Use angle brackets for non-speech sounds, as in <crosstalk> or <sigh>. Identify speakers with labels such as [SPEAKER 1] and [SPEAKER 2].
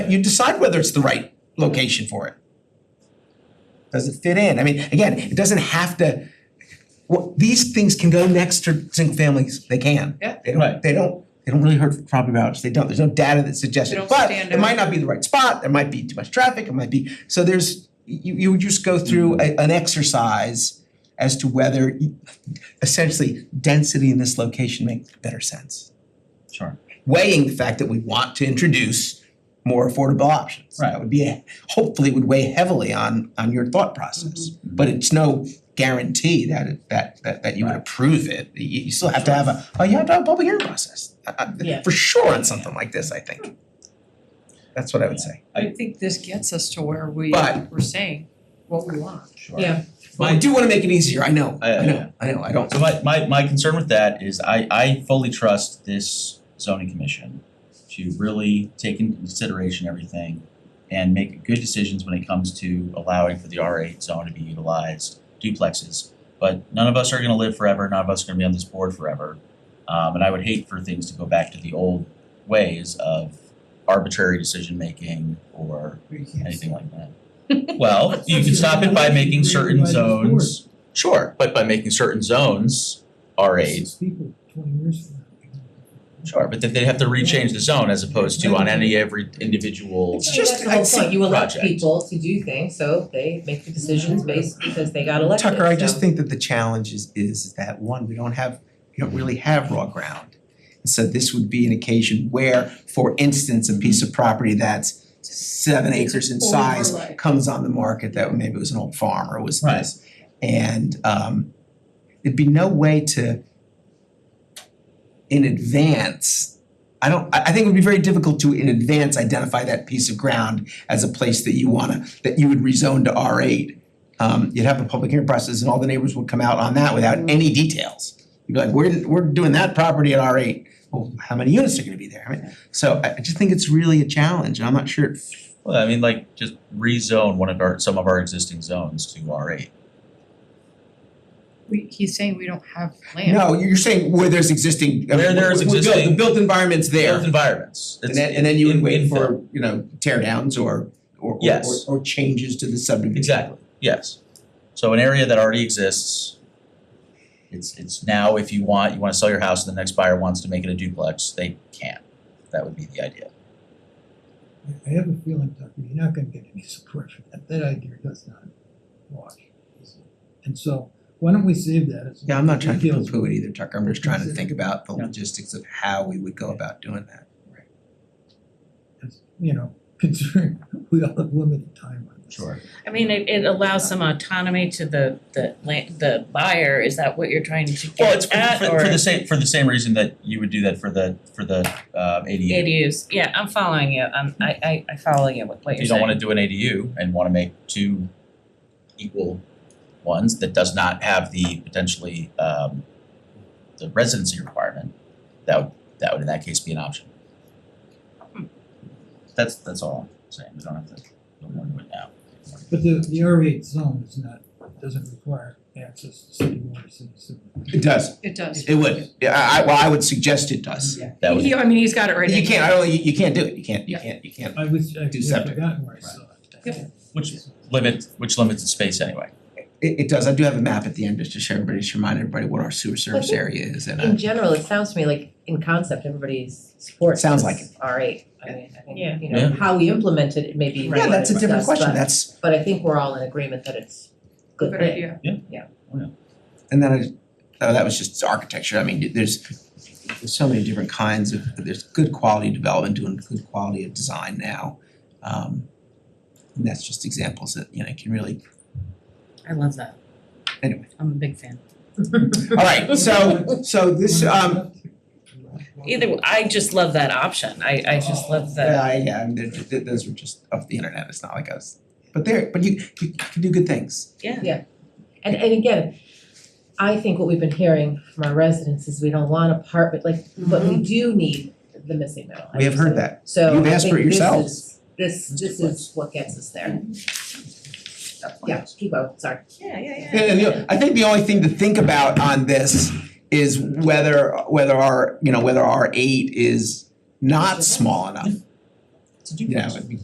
[SPEAKER 1] you decide whether it's the right location for it. Does it fit in? I mean, again, it doesn't have to, well, these things can go next to single families, they can.
[SPEAKER 2] Yeah.
[SPEAKER 1] They don't,
[SPEAKER 3] Right.
[SPEAKER 1] they don't, they don't really hurt property values, they don't, there's no data that suggests
[SPEAKER 2] They
[SPEAKER 1] it,
[SPEAKER 2] don't
[SPEAKER 1] but
[SPEAKER 2] stand
[SPEAKER 1] it might
[SPEAKER 2] out.
[SPEAKER 1] not be the right spot, there might be too much traffic, it might be, so there's, you you just go through a an exercise as to whether y- essentially density in this location makes better sense.
[SPEAKER 3] Sure.
[SPEAKER 1] Weighing the fact that we want to introduce more affordable options. That
[SPEAKER 3] Right.
[SPEAKER 1] would be, a- hopefully would weigh heavily on on your thought process.
[SPEAKER 3] Mm-hmm.
[SPEAKER 1] But it's no guarantee that it that that that you would
[SPEAKER 3] Right.
[SPEAKER 1] approve it. You you still have to have a, oh, you have to have a public hearing process. Uh, uh,
[SPEAKER 2] Yeah.
[SPEAKER 1] For sure on something like this, I think. That's what I would say.
[SPEAKER 2] I think this gets us to where we
[SPEAKER 1] But-
[SPEAKER 2] we're saying what we want.
[SPEAKER 3] Sure.
[SPEAKER 2] Yeah.
[SPEAKER 1] But I do wanna make it easier, I know,
[SPEAKER 3] I-
[SPEAKER 1] I know, I know, I don't.
[SPEAKER 3] So my my my concern with that is I I fully trust this zoning commission to really take into consideration everything and make good decisions when it comes to allowing for the R eight zone to be utilized, duplexes. But none of us are gonna live forever, none of us are gonna be on this board forever. Um and I would hate for things to go back to the old ways of arbitrary decision making or anything like that. Well, you can stop it by making certain zones, sure, but by making certain zones R eight,
[SPEAKER 4] Six people, twenty years from now.
[SPEAKER 3] sure, but then they'd have to rechange the zone as opposed to on any every individual.
[SPEAKER 1] It's just-
[SPEAKER 5] That's the whole
[SPEAKER 1] I'd say
[SPEAKER 5] point. you elect
[SPEAKER 3] project.
[SPEAKER 5] people to do things, so they make the decisions based because they got elected,
[SPEAKER 1] Tucker, I
[SPEAKER 5] so-
[SPEAKER 1] just think that the challenge is is that one, we don't have, we don't really have raw ground. And so this would be an occasion where, for instance, a piece of property that's seven acres in size
[SPEAKER 2] Overlay.
[SPEAKER 1] comes on the market that maybe it was an old farm or was
[SPEAKER 3] Right.
[SPEAKER 1] this. And um it'd be no way to in advance, I don't, I I think it would be very difficult to in advance identify that piece of ground as a place that you wanna, that you would rezone to R eight. Um you'd have a public hearing process and all the neighbors would come out on that without any details. You'd be like, we're we're doing that property at R eight, well, how many units are gonna be there? I mean, so I I just think it's really a challenge and I'm not sure it
[SPEAKER 3] Well, I mean, like just rezone one of our, some of our existing zones to R eight.
[SPEAKER 2] We he's saying we don't have land.
[SPEAKER 1] No, you're saying where there's existing, I mean,
[SPEAKER 3] Where there's
[SPEAKER 1] we- we built- the
[SPEAKER 3] existing-
[SPEAKER 1] built environment's there.
[SPEAKER 3] Built environments.
[SPEAKER 1] And
[SPEAKER 3] It's-
[SPEAKER 1] then and then you would
[SPEAKER 3] in-
[SPEAKER 1] wait
[SPEAKER 3] infill.
[SPEAKER 1] for, you know, tear downs or or or
[SPEAKER 3] Yes.
[SPEAKER 1] or or changes to the subdivision.
[SPEAKER 3] Exactly, yes. So an area that already exists, it's it's now if you want, you wanna sell your house and the next buyer wants to make it a duplex, they can. That would be the idea.
[SPEAKER 4] I- I have a feeling, Tucker, you're not gonna get any support for that, that idea does not wash. And so, why don't we save that as.
[SPEAKER 1] Yeah, I'm not trying to
[SPEAKER 4] details.
[SPEAKER 1] poo-poo it either, Tucker, I'm just trying to think about the
[SPEAKER 3] Yeah.
[SPEAKER 1] logistics of how we would go about doing that.
[SPEAKER 4] As, You know, <laughs> considering we all have limited time on this.
[SPEAKER 6] I mean, it it allows some autonomy to the the land, the buyer, is that what you're trying to
[SPEAKER 3] Well, it's
[SPEAKER 6] get
[SPEAKER 3] for
[SPEAKER 6] at
[SPEAKER 3] for
[SPEAKER 6] or
[SPEAKER 3] for the same for the same reason that you would do that for the for the um ADU.
[SPEAKER 6] ADUs? Yeah, I'm following you, I'm I I I follow you with what
[SPEAKER 3] If
[SPEAKER 6] you're
[SPEAKER 3] you don't
[SPEAKER 6] saying.
[SPEAKER 3] wanna do an ADU and wanna make two equal ones that does not have the potentially um the residency requirement, that would that would in that case be an option.
[SPEAKER 6] Hmm.
[SPEAKER 3] That's that's all I'm saying, we don't have to, don't wanna do it now.
[SPEAKER 4] But the, the R eight zone is not, doesn't require access to city water, city sewer.
[SPEAKER 1] It does.
[SPEAKER 2] It does.
[SPEAKER 1] It would, yeah, I I well, I would suggest it does.
[SPEAKER 2] Yeah.
[SPEAKER 3] That would,
[SPEAKER 2] He, I mean, he's got it right in.
[SPEAKER 1] You can't, I don't, you you can't do it, you can't, you
[SPEAKER 2] Yeah.
[SPEAKER 1] can't, you can't.
[SPEAKER 4] I was, I
[SPEAKER 1] Do
[SPEAKER 4] had
[SPEAKER 1] septic.
[SPEAKER 4] forgotten where I saw it.
[SPEAKER 2] Yep.
[SPEAKER 3] which limits, which limits the space anyway.
[SPEAKER 1] It it does, I do have a map at the end just to show everybody, just remind everybody what our sewer service area is and uh
[SPEAKER 5] In general, it sounds to me like in concept, everybody's supports
[SPEAKER 1] Sounds like
[SPEAKER 5] this R eight, I mean, I
[SPEAKER 6] Yeah.
[SPEAKER 5] think, you know, how we implement it, it may be
[SPEAKER 1] yeah,
[SPEAKER 5] what
[SPEAKER 1] that's a
[SPEAKER 5] it
[SPEAKER 1] different
[SPEAKER 5] does,
[SPEAKER 1] question,
[SPEAKER 5] but-
[SPEAKER 1] that's
[SPEAKER 5] But I think we're all in agreement that it's a good
[SPEAKER 2] Good
[SPEAKER 5] thing.
[SPEAKER 2] idea.
[SPEAKER 1] And then I, oh, that was just architecture, I mean, there's, there's so many different kinds of, there's good quality development, doing good quality of design now. Um, and that's just examples that, you know, can really,
[SPEAKER 6] I love that.
[SPEAKER 1] Anyway.
[SPEAKER 6] I'm a big fan.
[SPEAKER 1] all right, so, so this, um,
[SPEAKER 6] Either, w- I just love that option, I I just love that,
[SPEAKER 1] yeah, yeah, and they're- th- those were just off the internet, it's not like us. But there, but you, you can do good things.
[SPEAKER 6] yeah,
[SPEAKER 5] And and again, I think what we've been hearing from our residents is we don't want apartment, like, but we do need the missing middle. I
[SPEAKER 1] Mm-hmm. We have
[SPEAKER 5] think
[SPEAKER 1] heard
[SPEAKER 5] so.
[SPEAKER 1] that.
[SPEAKER 5] So
[SPEAKER 1] You've
[SPEAKER 5] I
[SPEAKER 1] asked
[SPEAKER 5] think
[SPEAKER 1] for it
[SPEAKER 5] this
[SPEAKER 1] yourselves.
[SPEAKER 5] is- This this is what gets us there. Yeah, keep going, sorry.
[SPEAKER 6] yeah, yeah, yeah.
[SPEAKER 1] And, you know, I think the only thing to think about on this is whether, whether our, you know, whether our eight is not small enough.
[SPEAKER 3] It's a
[SPEAKER 1] You know,